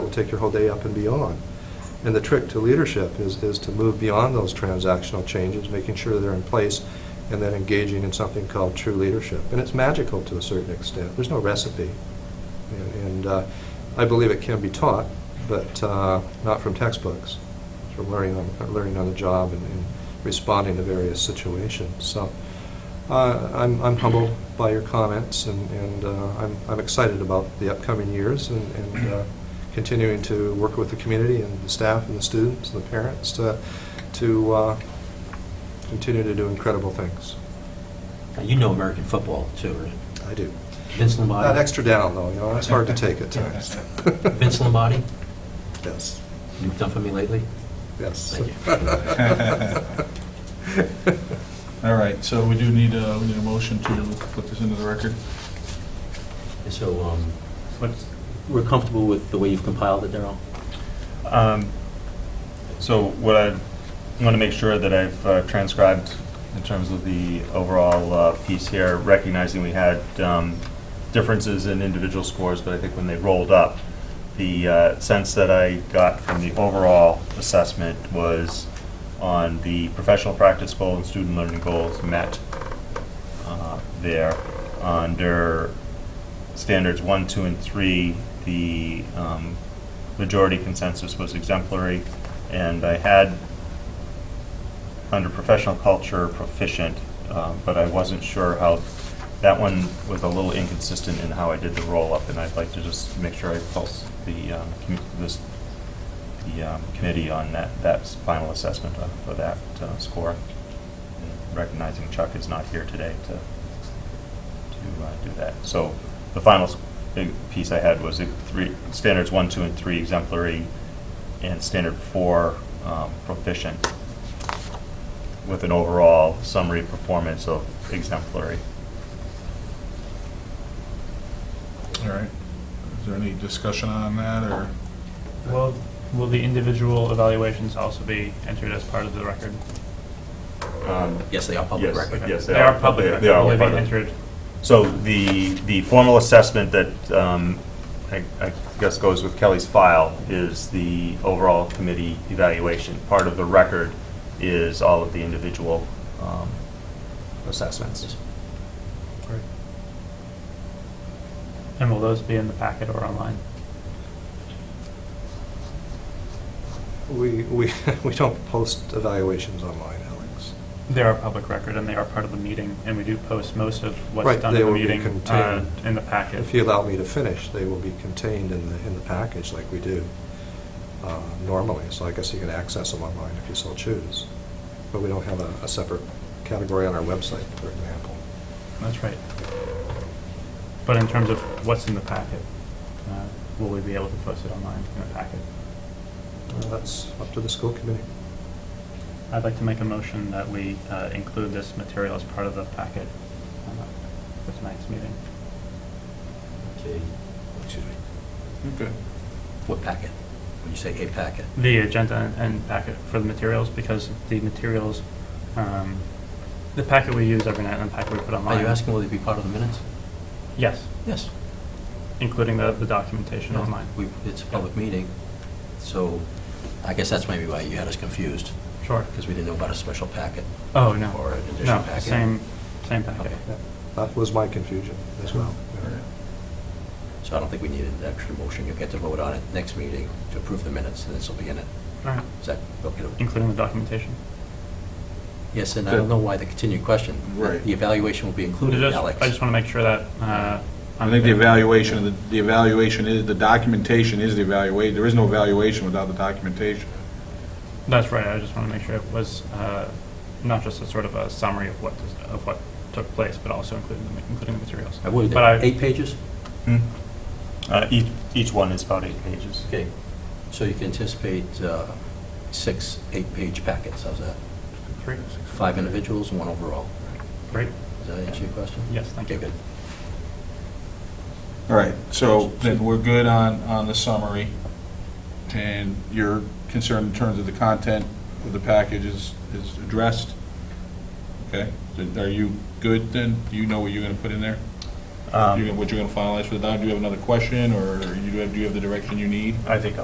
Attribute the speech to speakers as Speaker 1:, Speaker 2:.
Speaker 1: take your whole day up and beyond. And the trick to leadership is, is to move beyond those transactional changes, making sure they're in place, and then engaging in something called true leadership. And it's magical to a certain extent. There's no recipe. And- And uh, I believe it can be taught, but uh, not from textbooks, It's from learning on, learning on the job and and responding to various situations. So uh, I'm I'm humbled by your comments, and and, uh, I'm I'm excited about the upcoming years and- and uh, continuing to work with the community and the staff and the students and the parents to to uh, continue to do incredible things.
Speaker 2: Now, You know American football too, right?
Speaker 1: I do.
Speaker 2: Vince Lombardi.
Speaker 1: That extra down, though, you know, it's hard to take at times.
Speaker 2: Vince Lombardi,
Speaker 1: Yes,
Speaker 2: you've done for me lately.
Speaker 1: yes.
Speaker 2: Thank
Speaker 3: All right, so we do need a, we need a motion to put this into the record.
Speaker 2: And so, um,
Speaker 4: What's-
Speaker 2: we're comfortable with the way you've compiled it, Darrell?
Speaker 4: um, So what I want to make sure that I've uh, transcribed in terms of the overall uh, piece here, recognizing we had um, differences in individual scores, but I think when they rolled up, the uh, sense that I got from the overall assessment was on the professional practice goal and student learning goals met uh, there. Under standards one, two, and three, the um, majority consensus was exemplary, and I had, under professional culture, proficient, um, but I wasn't sure how, that one was a little inconsistent in how I did the roll-up, and I'd like to just make sure I pulse the, um, commu- this, the um, committee on that, that final assessment of- for that uh, score, And recognizing Chuck is not here today to to uh, do that. So the final s- big piece I had was the three, standards one, two, and three exemplary, and standard four um, proficient, with an overall summary performance of exemplary.
Speaker 3: All right. Is there any discussion on that, or?
Speaker 5: Will, will the individual evaluations also be entered as part of the record?
Speaker 3: um,
Speaker 2: Yes, they are public
Speaker 4: Yes,
Speaker 2: record.
Speaker 4: yes,
Speaker 5: They are public
Speaker 4: they-
Speaker 5: record.
Speaker 4: They are.
Speaker 5: Will they be
Speaker 4: public.
Speaker 5: entered?
Speaker 4: So the, the formal assessment that, um, I I guess goes with Kelly's file is the overall committee evaluation. Part of the record is all of the individual um, assessments.
Speaker 5: And will those be in the packet or online?
Speaker 1: We, we, we don't post evaluations online, Alex.
Speaker 5: They are public record and they are part of the meeting, and we do post most of
Speaker 1: Right,
Speaker 5: what's done
Speaker 1: they
Speaker 5: in the
Speaker 1: will be
Speaker 5: meeting uh,
Speaker 1: contained.
Speaker 5: in the packet.
Speaker 1: If you allow me to finish, they will be contained in the, in the package like we do uh, normally, so I guess you can access them online if you so choose. But we don't have a, a separate category on our website, for example.
Speaker 5: That's right. But in terms of what's in the packet, uh, will we be able to post it online in the packet?
Speaker 1: Uh, That's up to the school committee.
Speaker 5: I'd like to make a motion that we uh, include this material as part of the packet uh, for tonight's meeting.
Speaker 2: Okay. Excuse me.
Speaker 3: Okay.
Speaker 2: What packet? When you say a packet?
Speaker 5: the agenda and packet for the materials, because the materials, um, the packet we use every night and the packet we put online.
Speaker 2: Are you asking will they be part of the minutes?
Speaker 5: Yes,
Speaker 2: Yes.
Speaker 5: including the, the documentation online.
Speaker 2: We- It's a public meeting, so I guess that's maybe why you had us confused,
Speaker 5: Sure.
Speaker 2: because we didn't know about a special packet.
Speaker 5: Oh, no.
Speaker 2: Or an additional
Speaker 5: No,
Speaker 2: packet.
Speaker 5: same, same packet.
Speaker 2: Okay.
Speaker 1: Yeah, That was my confusion as well. Yeah.
Speaker 2: So I don't think we needed an extra motion. You'll get to vote on it next meeting to approve the minutes, and this will be in it.
Speaker 5: All right,
Speaker 2: Is that okay? to-
Speaker 5: including the documentation.
Speaker 2: Yes, and I don't know why the continued question.
Speaker 3: Right.
Speaker 2: The evaluation will be
Speaker 5: I
Speaker 2: included,
Speaker 5: just-
Speaker 2: Alex.
Speaker 5: I just want to make sure that, uh.
Speaker 3: I
Speaker 5: I'm
Speaker 3: think the
Speaker 5: clear.
Speaker 3: evaluation, of the- the evaluation is, the documentation is the evaluation, there is no evaluation without the documentation.
Speaker 5: That's right, I just want to make sure it was, uh, not just a sort of a summary of what, of what took place, but also including, the- including the materials.
Speaker 2: I would,
Speaker 5: But I-
Speaker 2: eight pages?
Speaker 4: Hmm. Uh, Each, each one is about eight pages.
Speaker 2: Okay, so you can anticipate uh, six eight-page packets, how's that?
Speaker 5: Three?
Speaker 2: Five individuals and one overall.
Speaker 5: Great,
Speaker 2: Does that answer your question?
Speaker 5: yes, thank
Speaker 2: Okay,
Speaker 5: you.
Speaker 2: good.
Speaker 3: All right, so then we're good on, on the summary, and your concern in terms of the content of the package is, is addressed. Okay, Then are you good then? Do you know what you're gonna put in there?
Speaker 4: Um,
Speaker 3: You- What you're gonna finalize for the doc? Do you have another question, or you have, do you have the direction you need?
Speaker 4: I think I'll